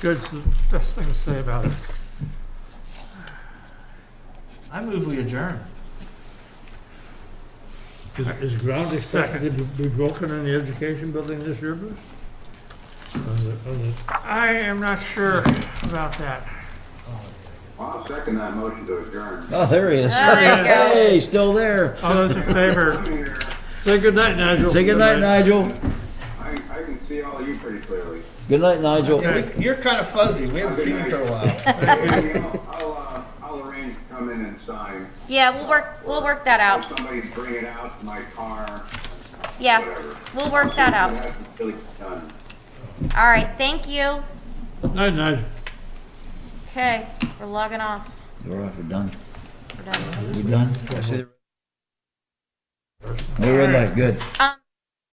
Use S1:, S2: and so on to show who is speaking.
S1: Good's the best thing to say about it.
S2: I move we adjourn.
S1: Is, is ground expected to be broken in the education building this year, Bruce? I am not sure about that.
S3: I'll second that motion to adjourn.
S4: Oh, there he is.
S5: Ah, there you go.
S4: Hey, still there.
S1: All those in favor, say good night, Nigel.
S4: Say goodnight, Nigel.
S3: I, I can see all of you pretty clearly.
S4: Good night, Nigel.
S1: Okay.
S2: Yeah, we- You're kind of fuzzy. We haven't seen you for a while.
S3: I'll, I'll, uh, I'll arrange to come in and sign.
S5: Yeah, we'll work, we'll work that
S3: Or
S5: out.
S3: somebody bring it out to my car.
S5: Yeah,
S3: Whatever.
S5: we'll work that
S3: It
S5: out.
S3: has to be done.
S5: All right, thank you.
S1: Night, Nigel.
S5: Okay, we're logging off.
S4: We're off, we're done.
S5: We're done.
S4: You done? I see the. No red light, good.
S5: Um,